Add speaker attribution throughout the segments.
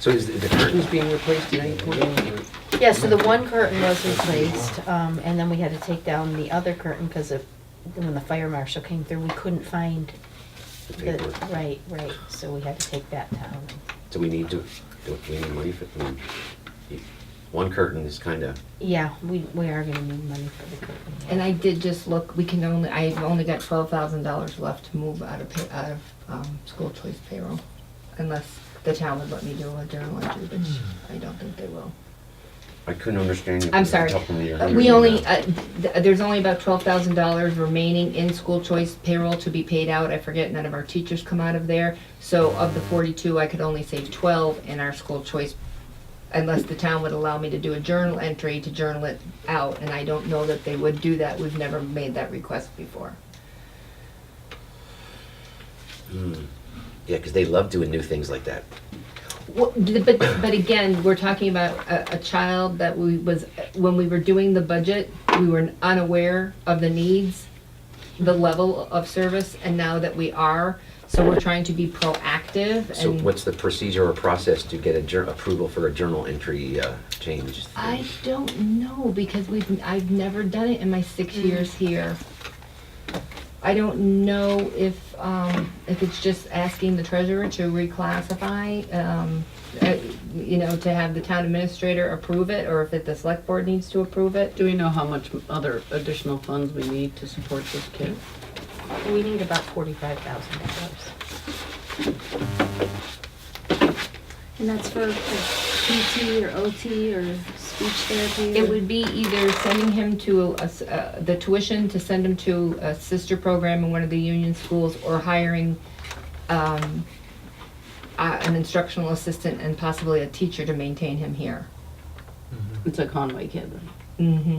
Speaker 1: So is the- the curtains being replaced at any point? or-
Speaker 2: Yeah, so the one curtain was replaced, um, and then we had to take down the other curtain because of, when the fire marshal came through, we couldn't find
Speaker 1: The
Speaker 2: the,
Speaker 1: paper.
Speaker 2: right, right, so we had to take that down.
Speaker 1: Do we need to, do we need money for, I mean, you- one curtain is kind of,
Speaker 2: Yeah, we, we are gonna need money for the curtain.
Speaker 3: And I did just look, we can only, I've only got twelve thousand dollars left to move out of, pay- out of, um, school choice payroll. Unless the town would let me do a journal entry, which I don't think they will.
Speaker 1: I couldn't understand. you
Speaker 3: I'm
Speaker 1: because you're
Speaker 3: sorry.
Speaker 1: talking to your
Speaker 3: Uh,
Speaker 1: hundred
Speaker 3: We
Speaker 1: and
Speaker 3: only,
Speaker 1: a-
Speaker 3: uh, th- there's only about twelve thousand dollars remaining in school choice payroll to be paid out. I forget, none of our teachers come out of there. So of the forty-two, I could only save twelve in our school choice, unless the town would allow me to do a journal entry to journal it out. And I don't know that they would do that. We've never made that request before.
Speaker 1: Hmm. Yeah, because they love doing new things like that.
Speaker 3: Well, d- but, but again, we're talking about a, a child that we was, when we were doing the budget, we were unaware of the needs, the level of service, and now that we are, so we're trying to be proactive
Speaker 1: So
Speaker 3: and.
Speaker 1: what's the procedure or process to get a jur- approval for a journal entry uh, change?
Speaker 3: I don't know, because we've, I've never done it in my six years here. I don't know if, um, if it's just asking the treasurer to reclassify, um, uh, you know, to have the town administrator approve it, or if it, the select board needs to approve it.
Speaker 4: Do we know how much other additional funds we need to support this kid?
Speaker 2: We need about forty-five thousand dollars.
Speaker 5: And that's for PT or OT or speech therapy?
Speaker 3: It would be either sending him to, a s- uh, the tuition to send him to a sister program in one of the union schools, or hiring, um, uh, an instructional assistant and possibly a teacher to maintain him here.
Speaker 4: It's a Conway kid. then.
Speaker 3: Mm-hmm.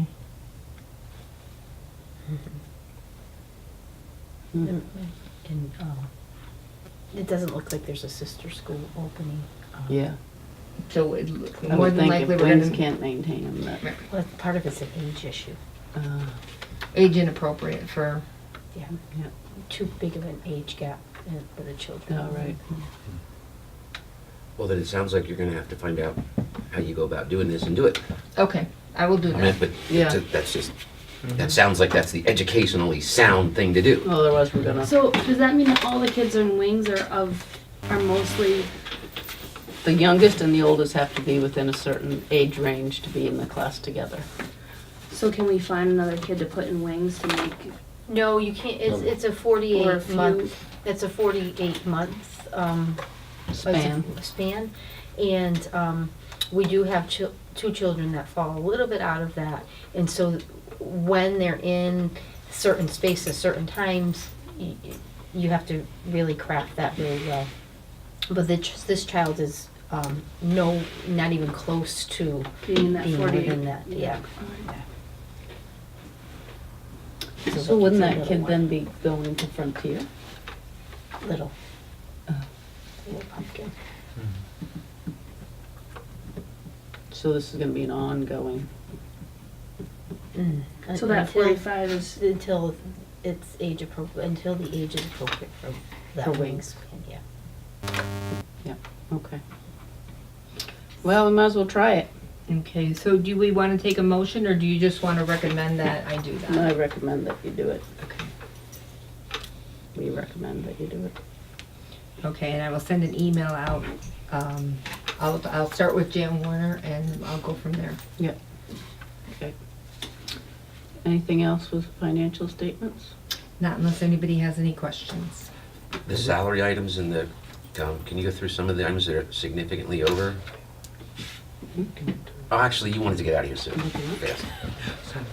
Speaker 2: Mm-hmm.
Speaker 3: Mm-hmm.
Speaker 2: And, um, it doesn't look like there's a sister school opening. um,
Speaker 4: Yeah.
Speaker 3: So it, look-
Speaker 4: I
Speaker 3: more
Speaker 4: would
Speaker 3: than
Speaker 4: think if
Speaker 3: likely, we're
Speaker 4: Wings
Speaker 3: gonna,
Speaker 4: can't maintain them, that,
Speaker 2: Well, part of it's an age issue,
Speaker 4: uh,
Speaker 3: age inappropriate for,
Speaker 2: yeah,
Speaker 4: yeah,
Speaker 2: too big of an age gap uh, for the children.
Speaker 4: all right.
Speaker 1: Well, then it sounds like you're going to have to find out how you go about doing this and do it.
Speaker 3: okay, I will do
Speaker 1: I mean,
Speaker 3: that.
Speaker 1: but
Speaker 4: Yeah.
Speaker 1: that's- that's just, that sounds like that's the educationally sound thing to do.
Speaker 4: Otherwise, we're gonna,
Speaker 5: So does that mean that all the kids in wings are of, are mostly,
Speaker 4: the youngest and the oldest have to be within a certain age range to be in the class together.
Speaker 5: so can we find another kid to put in wings to make,
Speaker 2: No, you can't, it's, it's a
Speaker 5: or a
Speaker 2: forty-eight
Speaker 5: few?
Speaker 2: month, it's a forty-eight month, um, what's it-
Speaker 4: Span.
Speaker 2: Span, and, um, we do have chil- two children that fall a little bit out of that, and so when they're in certain spaces, certain times, you, you have to really craft that very well. But this, this child is, um, no, not even close to
Speaker 5: Being in that
Speaker 2: being
Speaker 5: 48?
Speaker 2: within that, yeah.
Speaker 4: So wouldn't
Speaker 2: it's a
Speaker 4: that kid
Speaker 2: little
Speaker 4: then be going to Frontier?
Speaker 2: one. Little.
Speaker 4: Oh.
Speaker 2: Little pumpkin.
Speaker 4: So this is gonna be an ongoing,
Speaker 2: Mm.
Speaker 5: So that
Speaker 2: Until-
Speaker 5: forty-five is,
Speaker 2: until it's age appropriate, until the age is appropriate for that
Speaker 4: For
Speaker 2: wingspan,
Speaker 4: wings.
Speaker 2: yeah.
Speaker 4: yeah, okay. Well, we might as well try it.
Speaker 3: Okay, so do we wanna take a motion, or do you just wanna recommend that I do
Speaker 4: And I
Speaker 3: that?
Speaker 4: recommend that you do it.
Speaker 3: Okay.
Speaker 4: We recommend that you do it.
Speaker 3: Okay, and I will send an email out, um, I'll, I'll start with Jan Warner and I'll go from there.
Speaker 4: Okay. Anything else with financial statements?
Speaker 3: Not unless anybody has any questions.
Speaker 1: The salary items and the, um, can you go through some of the items that are significantly over? Oh, actually, you wanted to get out of here soon. Fast.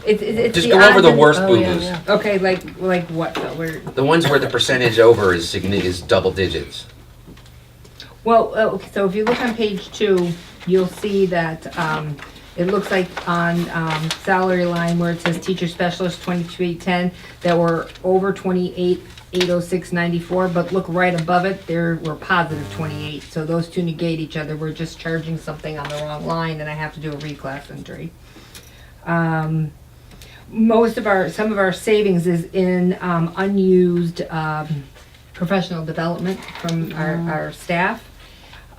Speaker 3: It's, it's, it's
Speaker 1: Just go over
Speaker 3: odds
Speaker 1: the
Speaker 3: and-
Speaker 1: worst
Speaker 3: oh, yeah,
Speaker 1: boo-boos.
Speaker 3: yeah. Okay, like, like what, though? We're,
Speaker 1: The ones where the percentage over is signi, is double digits.
Speaker 3: Well, uh, okay, so if you look on page two, you'll see that, um, it looks like on, um, salary line where it says teacher specialist twenty-two eight ten, that we're over twenty-eight, eight oh six ninety-four, but look right above it, there we're positive twenty-eight, so those two negate each other, we're just charging something on the wrong line, and I have to do a reclass entry. Um, most of our, some of our savings is in, um, unused, um, professional development from our, our staff.